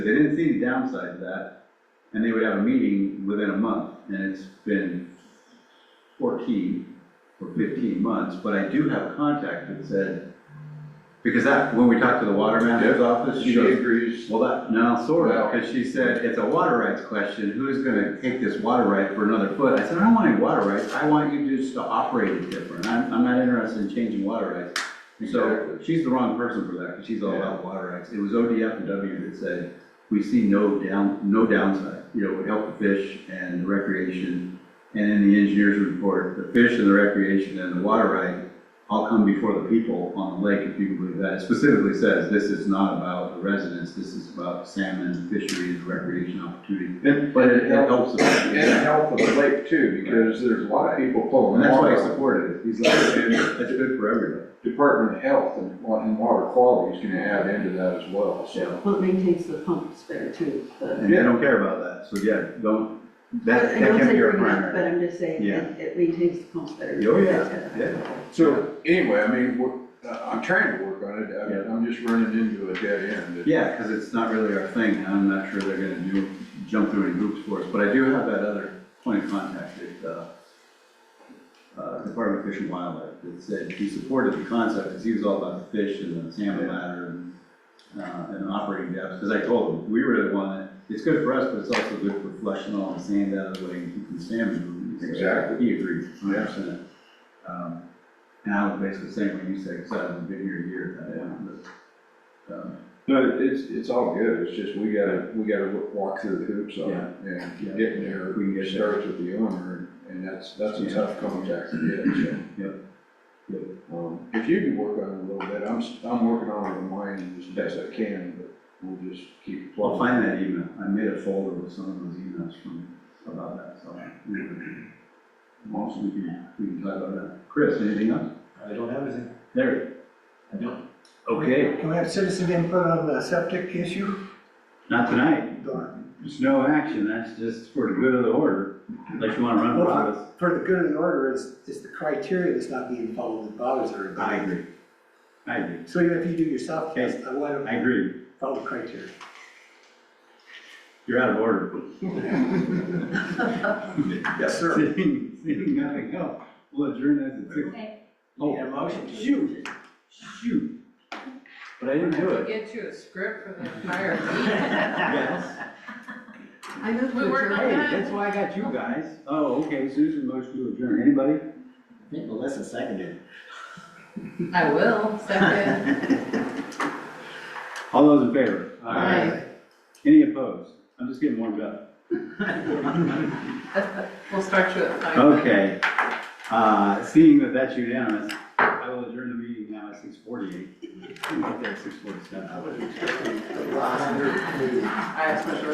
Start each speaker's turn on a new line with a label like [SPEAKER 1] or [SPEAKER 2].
[SPEAKER 1] They didn't see the downside to that, and they would have a meeting within a month, and it's been fourteen or fifteen months, but I do have contact that said, because that, when we talked to the water manager's office, she
[SPEAKER 2] She
[SPEAKER 1] goes,
[SPEAKER 2] agrees.
[SPEAKER 1] well, that, no, sort
[SPEAKER 2] Well-
[SPEAKER 1] of, because she said, it's a water rights question, who's gonna take this water right for another foot? I said, I don't want any water rights, I want you just to operate it different, I'm, I'm not interested in changing water rights. So
[SPEAKER 2] Exactly.
[SPEAKER 1] she's the wrong person for that, because she's all
[SPEAKER 2] Yeah.
[SPEAKER 1] about water rights. It was ODF and W that said, we see no down, no downside. You know, it would help the fish and the recreation. And in the engineer's report, the fish and the recreation and the water right all come before the people on the lake, if you can believe that. It specifically says, this is not about the residents, this is about salmon, fisheries, recreation opportunity.
[SPEAKER 2] And,
[SPEAKER 1] But it it helps the
[SPEAKER 2] and the
[SPEAKER 1] people.
[SPEAKER 2] health of the lake too, because there's a lot of people
[SPEAKER 1] And
[SPEAKER 2] pulling
[SPEAKER 1] that's why he
[SPEAKER 2] water.
[SPEAKER 1] supported it. He's like, it's good for everybody.
[SPEAKER 2] Department of Health and wa- and water quality is gonna add into that as well, so.
[SPEAKER 3] Well, it maintains the pumps better too, but.
[SPEAKER 1] And they don't care about that, so yeah, don't,
[SPEAKER 3] I
[SPEAKER 1] that, that
[SPEAKER 3] don't
[SPEAKER 1] can
[SPEAKER 3] say
[SPEAKER 1] be your
[SPEAKER 3] bring it up, But
[SPEAKER 1] primary.
[SPEAKER 3] I'm just saying,
[SPEAKER 1] Yeah.
[SPEAKER 3] it, it maintains the pumps better.
[SPEAKER 1] Oh,
[SPEAKER 3] That's-
[SPEAKER 1] yeah, yeah,
[SPEAKER 2] So anyway, I mean, we're, uh, I'm trying to work on it.
[SPEAKER 1] Yeah.
[SPEAKER 2] I'm, I'm just running into a dead end.
[SPEAKER 1] yeah, cause it's not really our thing, and I'm not sure they're gonna do, jump through any hoops for us, but I do have that other point of contact at, uh, uh, Department of Fish and Wildlife, that said he supported the concept, cause he was all about the fish and the salmon ladder and, uh, and operating depths, cause I told him, we really want it, it's good for us, but it's also good for flushing all the sand out of the way and keeping salmon moving. So
[SPEAKER 2] Exactly.
[SPEAKER 1] He agreed, hundred percent. Um, And I was basically saying what you said, because I haven't been here a year at that point, but, um,
[SPEAKER 2] No, it's, it's all good. It's just we gotta, we gotta walk through the hoops on it and
[SPEAKER 1] Yeah.
[SPEAKER 2] getting there.
[SPEAKER 1] If we can get
[SPEAKER 2] It starts with the owner and that's, that's a
[SPEAKER 1] Yeah.
[SPEAKER 2] tough contact to get,
[SPEAKER 1] Yep.
[SPEAKER 2] so. Um, if you can work on it a little bit, I'm, s- I'm working on it in mine as best I can, but we'll just keep
[SPEAKER 1] I'll
[SPEAKER 2] plugging.
[SPEAKER 1] find that email, I made a folder with some of those emails from, about that, so. anyway. Also, we can, we can talk about that. Chris, anything else?
[SPEAKER 4] I don't have anything.
[SPEAKER 1] There.
[SPEAKER 4] I don't.
[SPEAKER 1] Okay,
[SPEAKER 5] Can we have citizen input on the septic issue?
[SPEAKER 1] not tonight,
[SPEAKER 5] Well,
[SPEAKER 1] there's no action, that's just for the good of the order, unless you wanna run for office.
[SPEAKER 5] For the good of the order, it's, it's the criteria that's not being followed that bothers everybody.
[SPEAKER 1] I agree. I agree,
[SPEAKER 5] So even if you do your soft test, I want
[SPEAKER 1] I
[SPEAKER 5] to
[SPEAKER 1] agree,
[SPEAKER 5] follow the criteria.
[SPEAKER 1] you're out of order.
[SPEAKER 5] Yes,
[SPEAKER 1] Seeing, seeing nothing else, we'll adjourn as a six. Oh,
[SPEAKER 5] Need a motion to-
[SPEAKER 1] Shoot, shoot. But I didn't do
[SPEAKER 6] We
[SPEAKER 1] it.
[SPEAKER 6] Get you a script for the entire meeting.
[SPEAKER 1] Yes.
[SPEAKER 3] I know.
[SPEAKER 6] We work on
[SPEAKER 1] Hey,
[SPEAKER 6] that.
[SPEAKER 1] that's why I got you guys. Oh, okay, Susan motion to adjourn. Anybody?
[SPEAKER 7] I think Melissa seconded.
[SPEAKER 6] I will, second.
[SPEAKER 1] All those in favor?
[SPEAKER 6] Aye.
[SPEAKER 1] Any opposed? I'm just getting warmed up.
[SPEAKER 6] We'll start you at five.
[SPEAKER 1] Okay. Uh, seeing that that's unanimous, I will adjourn the meeting now at six forty-eight. Six forty-seven.
[SPEAKER 7] Wow.
[SPEAKER 6] I have special